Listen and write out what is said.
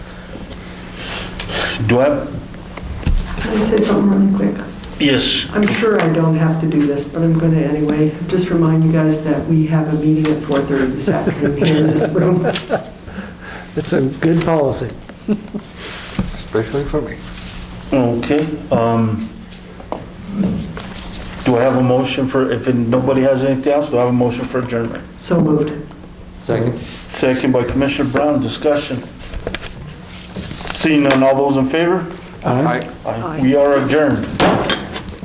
Do I, Can I say something really quick? yes, I'm sure I don't have to do this, but I'm going to anyway. Just remind you guys that we have a meeting at 4:30 this afternoon here in this room. It's a good policy. especially for me. okay. um, Do I have a motion for, if nobody has anything else, do I have a motion for adjournment? So moved. Second. Second by Commissioner Brown, discussion. Seeing none, all those in favor? Aye. Aye. Aye. We are adjourned.